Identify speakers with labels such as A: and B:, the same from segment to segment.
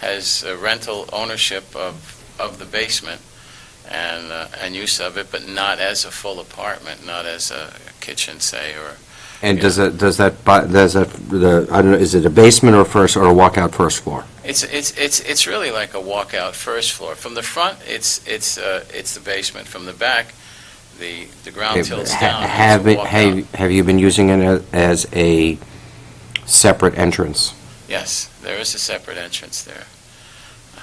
A: has uh, rental ownership of, of the basement and, uh, and use of it, but not as a full apartment, not as a kitchen, say, or,
B: And does that, does that, bu- does that, the, I don't know, is it a basement or first, or a walkout first floor?
A: it's, it's, it's, it's really like a walkout first floor. From the front, it's, it's, uh, it's the basement. From the back, the, the ground tilts
B: Ha-
A: down. it's a
B: Have, it-
A: walkout.
B: have have you been using it a- as a separate entrance?
A: Yes, there is a separate entrance there.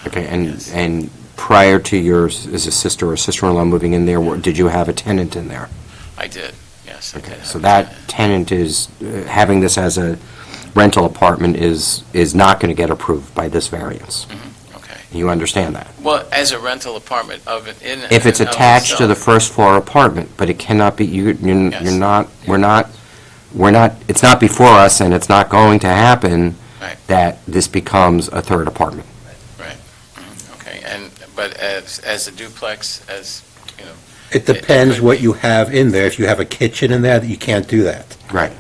B: Okay, and,
A: Yes.
B: and prior to your, s- is a sister or sister-in-law moving in there, were- did you have a tenant in there?
A: I did, yes, I did.
B: Okay, so
A: have
B: that tenant is, uh, having this as a rental apartment is, is not going to get approved by this variance.
A: Okay.
B: You understand that?
A: Well, as a rental apartment of, it- in.
B: If it's
A: and of
B: attached to the
A: itself.
B: first floor apartment, but it cannot be, you, you're
A: Yes.
B: you're not, we're not, we're not, it's not before us and it's not going to happen
A: Right.
B: that this becomes a third apartment.
A: Okay, and, but as, as a duplex, as, you know,
C: It depends what you have in there. If you have a kitchen in there, you can't do that.
B: Right.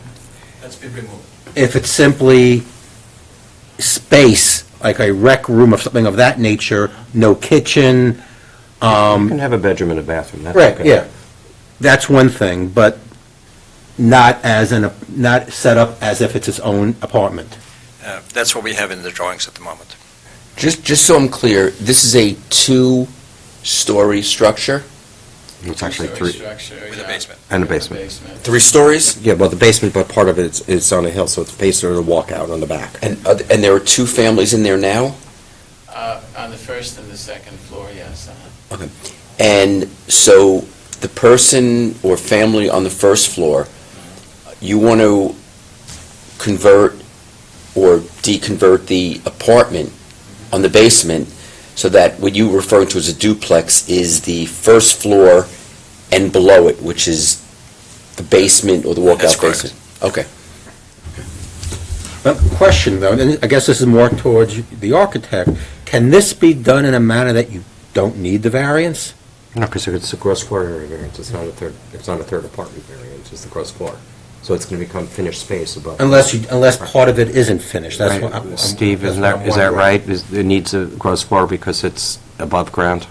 D: That's been removed.
C: If it's simply space, like a rec room or something of that nature, no kitchen,
B: You can have a bedroom and a bathroom, that's
C: right, yeah. That's one thing, but not as an, not set up as if it's its own apartment.
D: Uh, That's what we have in the drawings at the moment.
E: Just, just so I'm clear, this is a two-story structure?
B: It's actually
A: two-story
B: three,
A: structure,
D: With a
A: yeah,
D: basement.
B: and a
A: with a
B: basement.
A: basement.
E: Three stories?
B: Yeah, well, the basement, but part of it is- is on a hill, so it's facing the walkout on the back.
E: And, are th- and there are two families in there now?
A: Uh, on the first and the second floor, yes. uh-huh.
E: And so the person or family on the first floor, you want to convert or deconvert the apartment on the basement so that what you refer to as a duplex is the first floor and below it, which is the basement or the
D: That's
E: walkout
D: correct.
E: basement? Okay.
C: But question though, and I guess this is more towards the architect, can this be done in a manner that you don't need the variance?
B: No, because it's a gross floor area variance, it's not a third, it's not a third apartment variance, it's the gross floor. So it's going to become finished space above.
C: Unless you, unless part of it isn't finished, that's what I'm...
B: Right. Steve,
C: that's
B: isn't
C: what I'm
B: that, is that
C: wondering.
B: right? Is- It needs a gross floor because it's above ground?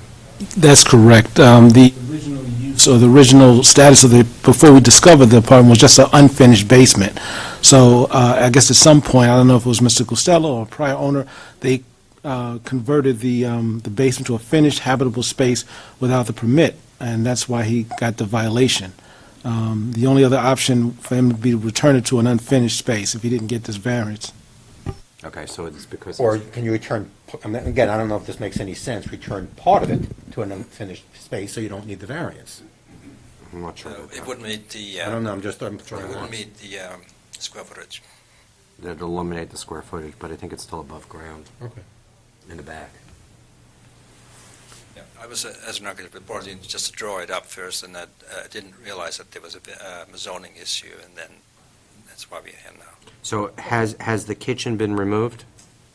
F: That's correct. Um, The original use, or the original status of the, before we discovered the apartment, was just an unfinished basement. So uh, I guess at some point, I don't know if it was Mr. Costello or a prior owner, they uh, converted the um, the basement to a finished habitable space without the permit, and that's why he got the violation. Um, The only other option for him would be to return it to an unfinished space if he didn't get this variance.
B: Okay, so it's because,
C: Or
B: it's-
C: can you return, p- I mean, again, I don't know if this makes any sense, return part of it to an unfinished space, so you don't need the variance.
B: I'm not sure.
D: So It wouldn't meet the,
C: I don't
D: uh,
C: know, I'm just, I'm
D: it
C: throwing
D: wouldn't
C: out.
D: meet the um, square footage.
B: That'd eliminate the square footage, but I think it's still above ground.
C: Okay.
B: In the back.
D: Yeah, I was, uh, as an architect, reporting just to draw it up first, and that, uh, I didn't realize that there was a bit, um, zoning issue, and then that's why we have now.
B: So has, has the kitchen been removed?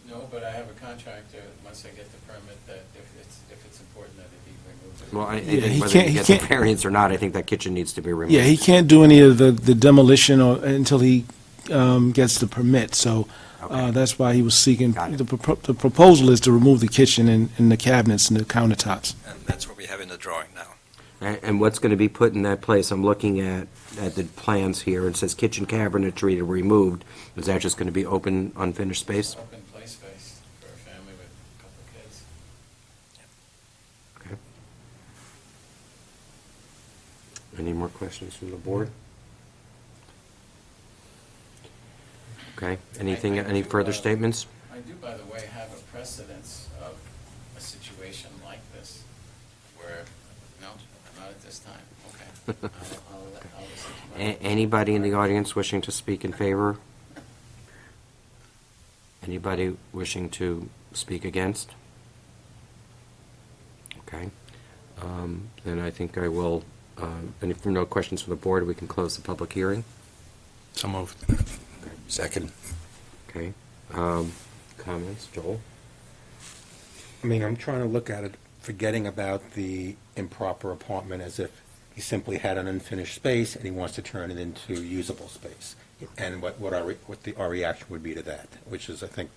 A: No, but I have a contractor, once I get the permit, that if it's, if it's important that it be removed.
B: Well, I I
F: Yeah,
B: think
F: he
B: whether
F: can't-
B: you
F: he
B: get the
F: can't-
B: variance or not, I think that kitchen needs to be removed.
F: Yeah, he can't do any of the the demolition or- until he um, gets the permit, so Uh,
B: Okay.
F: That's why he was seeking,
B: Got it.
F: the propo- the proposal is to remove the kitchen and and the cabinets and the countertops.
D: And that's what we have in the drawing now.
B: A- And what's going to be put in that place? I'm looking at, at the plans here. It says kitchen cabinetry removed. Is that just going to be open, unfinished space?
A: Open play space for a family with a couple of kids.
B: Any more questions from the board? Okay, anything, any further statements?
A: I do, by the way, have a precedence of a situation like this, where, no, not at this time, okay. I'll- I'll let- I'll listen to
B: A-
A: my-
B: Anybody in the audience wishing to speak in favor? Anybody wishing to speak against? Okay, Um, then I think I will, uh, and if there are no questions from the board, we can close the public hearing.
D: So moved.
E: Second.
B: Okay, Um, comments, Joel?
C: I mean, I'm trying to look at it, forgetting about the improper apartment as if he simply had an unfinished space and he wants to turn it into usable space. And what, what our, re- what the, our reaction would be to that, which is, I think,